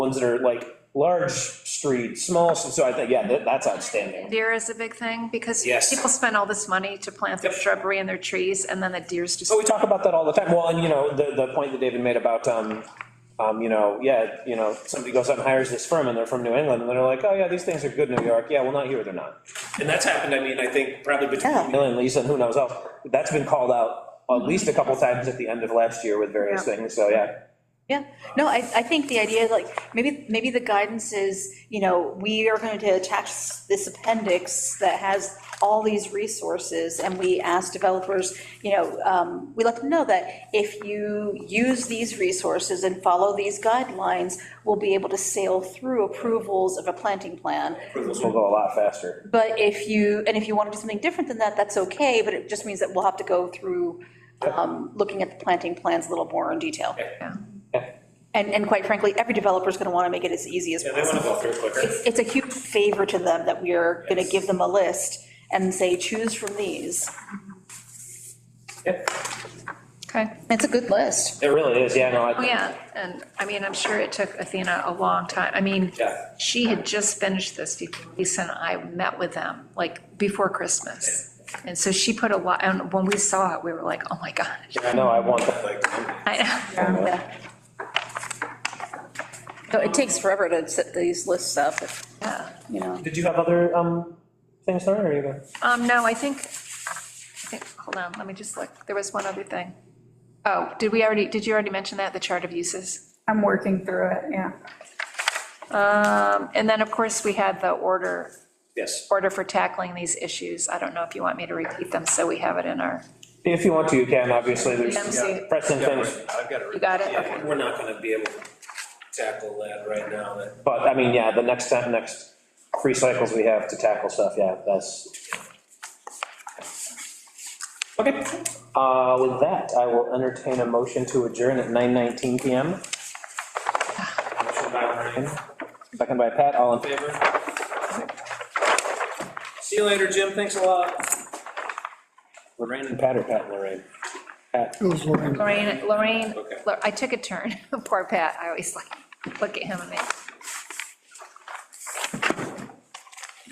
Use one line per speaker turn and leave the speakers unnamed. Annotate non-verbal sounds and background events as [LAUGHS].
ones that are like large street, small, so so I think, yeah, that, that's outstanding.
Deer is a big thing, because
Yes.
people spend all this money to plant their shrubbery and their trees, and then the deers just.
So we talk about that all the time, well, and you know, the, the point that David made about, um, um, you know, yeah, you know, somebody goes out and hires this firm, and they're from New England, and they're like, oh, yeah, these things are good in New York, yeah, well, not here, they're not.
And that's happened, I mean, I think probably between
Yeah.
you
Bill and Lisa, and who knows else, that's been called out at least a couple times at the end of last year with various
Mm-hmm. Yeah.
things, so, yeah.
Yeah, no, I, I think the idea, like, maybe, maybe the guidance is, you know, we are going to attach this appendix that has all these resources, and we ask developers, you know, um, we let them know that if you use these resources and follow these guidelines, we'll be able to sail through approvals of a planting plan.
Approvals will go a lot faster.
But if you, and if you want to do something different than that, that's okay, but it just means that we'll have to go through, um, looking at the planting plans a little more in detail.
Yeah.
And, and quite frankly, every developer's gonna wanna make it as easy as
Yeah, they want to
possible.
go through quicker.
It's, it's a huge favor to them that we are gonna give them a list and say, choose from these.
Okay,
It's a good list.
It really is, yeah, no,
oh,
I,
yeah, and, I mean, I'm sure it took Athena a long time, I mean,
Yeah.
she had just finished this before Lisa and I met with them, like, before Christmas. And so she put a lot, and when we saw it, we were like, oh my God.
I know, I want that, like,
I
Yeah. So It takes forever to set these lists up,
yeah.
you know.
Did you have other, um, things, Lauren, or you go?
Um, no, I think, I think, hold on, let me just look, there was one other thing. Oh, did we already, did you already mention that, the chart of uses?
I'm working through it, yeah.
Um, and then, of course, we had the order,
Yes.
order for tackling these issues, I don't know if you want me to repeat them, so we have it in our,
If you want to, you can, obviously,
Yeah.
there's pressing
Yeah,
things,
right. I've got it.
you got it,
Yeah,
okay.
we're not gonna be able to tackle that right now, that,
but, I mean, yeah, the next time, next three cycles we have to tackle stuff, yeah, that's. Okay, uh, with that, I will entertain a motion to adjourn at 9:19 PM.
motion by Ryan,
Second by Pat, all in favor?
favor. See you later, Jim, thanks a lot.
Lorraine and Pat or Pat and Lorraine? Pat.
It was Lorraine.
Lorraine, Lorraine,
Okay.
[LAUGHS] Lor- I took a turn, poor Pat, I always like, look at him and make.